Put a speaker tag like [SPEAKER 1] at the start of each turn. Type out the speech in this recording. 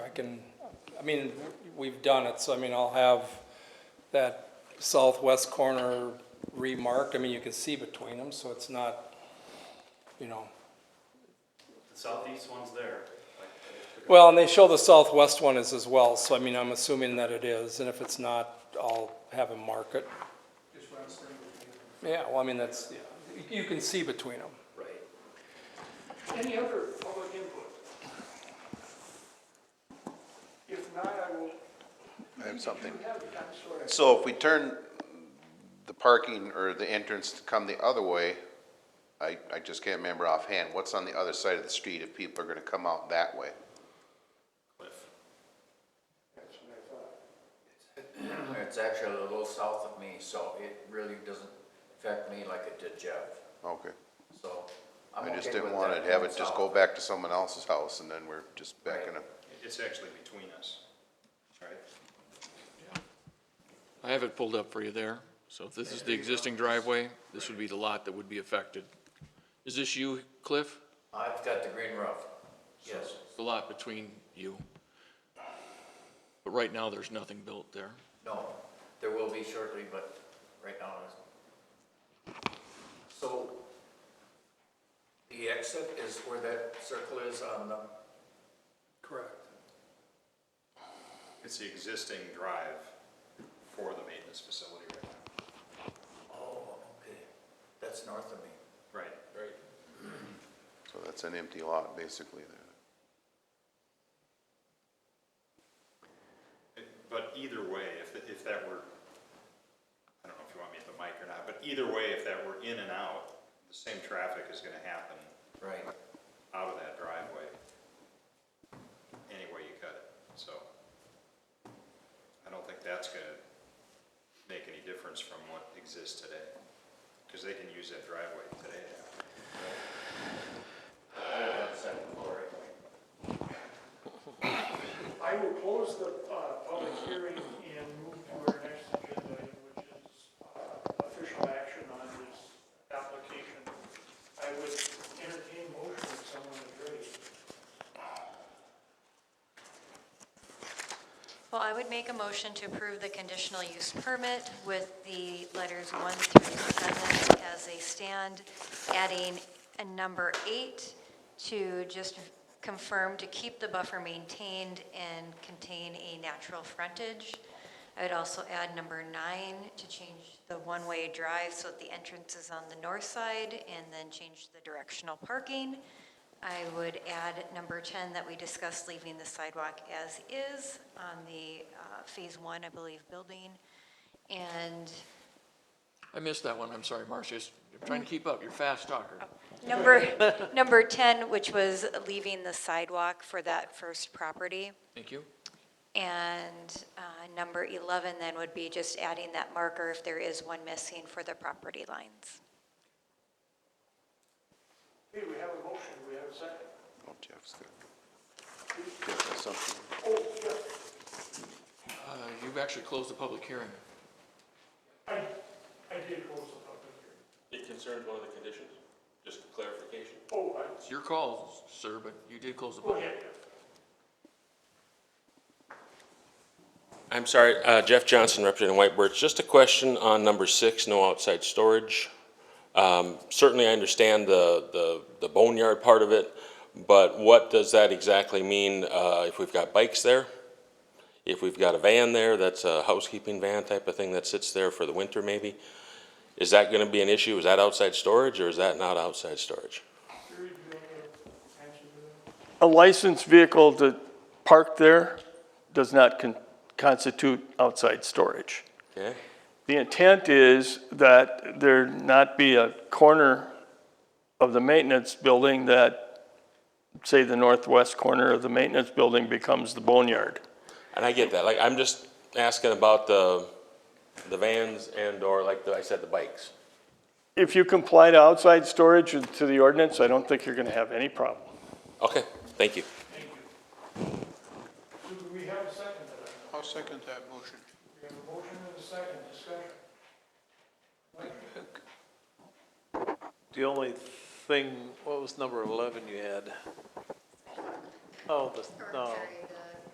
[SPEAKER 1] can, I mean, we've done it, so I mean, I'll have that southwest corner remarked. I mean, you can see between them, so it's not, you know.
[SPEAKER 2] The southeast one's there. like, I took a-
[SPEAKER 1] Well, and they show the southwest one is as well, so I mean, I'm assuming that it is, and if it's not, I'll have them mark it. Yeah, well, I mean, that's, yeah, you can see between them.
[SPEAKER 2] Right.
[SPEAKER 3] Any other public input? If not, I will.
[SPEAKER 4] I have something.
[SPEAKER 3] You have it, I'm sorry.
[SPEAKER 4] So if we turn the parking or the entrance to come the other way, I, I just can't remember offhand, what's on the other side of the street if people are gonna come out that way?
[SPEAKER 2] Cliff.
[SPEAKER 3] That's what I thought.
[SPEAKER 5] It's actually a little south of me, so it really doesn't affect me like it did Jeff,
[SPEAKER 4] Okay.
[SPEAKER 5] so I'm
[SPEAKER 4] I
[SPEAKER 5] okay
[SPEAKER 4] just didn't
[SPEAKER 5] with
[SPEAKER 4] wanna
[SPEAKER 5] that
[SPEAKER 4] have
[SPEAKER 5] going
[SPEAKER 4] it just
[SPEAKER 5] south.
[SPEAKER 4] go back to someone else's house and then we're just back in a,
[SPEAKER 2] It's actually between us, right?
[SPEAKER 6] I have it pulled up for you there. So if this is the existing driveway, this would be the lot that would be affected. Is this you, Cliff?
[SPEAKER 5] I've got the green roof, yes.
[SPEAKER 6] The lot between you? But right now, there's nothing built there.
[SPEAKER 5] No, there will be shortly, but right now it's. So the exit is where that circle is on the,
[SPEAKER 2] It's the existing drive for the maintenance facility right now.
[SPEAKER 5] oh, okay, that's north of me.
[SPEAKER 2] Right. Right.
[SPEAKER 4] so that's an empty lot basically there.
[SPEAKER 2] But either way, if, if that were, I don't know if you want me at the mic or not, but either way, if that were in and out, the same traffic is gonna happen
[SPEAKER 5] Right.
[SPEAKER 2] out of that driveway. Any way you cut it, so. I don't think that's gonna make any difference from what exists today, cause they can use that driveway today.
[SPEAKER 3] I will close the uh, public hearing and move to our next agenda, item, which is uh, official action on this application. I would entertain motion if someone is ready.
[SPEAKER 7] Well, I would make a motion to approve the conditional use permit with the letters one through seven as they stand, adding a number eight to just confirm to keep the buffer maintained and contain a natural frontage. I would also add number nine to change the one-way drive so that the entrance is on the north side and then change the directional parking. I would add number 10 that we discussed leaving the sidewalk as is on the uh, Phase 1, I believe, building. And
[SPEAKER 6] I missed that one. I'm sorry, Marcia. It's- I'm trying to keep up. You're a fast talker.
[SPEAKER 7] number, number 10, which was leaving the sidewalk for that first property.
[SPEAKER 6] Thank you.
[SPEAKER 7] And uh, number 11 then would be just adding that marker if there is one missing for the property lines.
[SPEAKER 3] Hey, we have a motion, we have a second.
[SPEAKER 4] Oh, Jeff's got. Jeff has something.
[SPEAKER 3] Oh, yeah,
[SPEAKER 6] Uh, You've actually closed the public hearing.
[SPEAKER 3] I, I did close the public hearing.
[SPEAKER 8] It concerns one of the conditions, just clarification.
[SPEAKER 3] Oh, I,
[SPEAKER 6] It's your call, sir, but you did close the
[SPEAKER 3] go
[SPEAKER 6] public.
[SPEAKER 3] ahead.
[SPEAKER 8] I'm sorry, uh, Jeff Johnson, representing White Birch. Just a question on number six, no outside storage. Um, Certainly, I understand the- the the boneyard part of it, but what does that exactly mean uh, if we've got bikes there? If we've got a van there, that's a housekeeping van type of thing that sits there for the winter maybe? Is that going to be an issue? Is that outside storage or is that not outside storage?
[SPEAKER 3] Siri, do you want to answer
[SPEAKER 9] A
[SPEAKER 3] that?
[SPEAKER 9] licensed vehicle to park there does not con- constitute outside storage.
[SPEAKER 8] Okay?
[SPEAKER 9] The intent is that there not be a corner of the maintenance building that, say, the northwest corner of the maintenance building becomes the boneyard.
[SPEAKER 8] And I get that, like, I'm just asking about the, the vans and or like the- I said, the bikes.
[SPEAKER 9] If you comply to outside storage and to the ordinance, I don't think you're going to have any problem.
[SPEAKER 8] Okay, thank you.
[SPEAKER 3] Do we have a second to that?
[SPEAKER 4] I'll second that motion.
[SPEAKER 3] We have a motion and a second discussion.
[SPEAKER 10] The only thing, what was number 11 you had? Oh, the, no,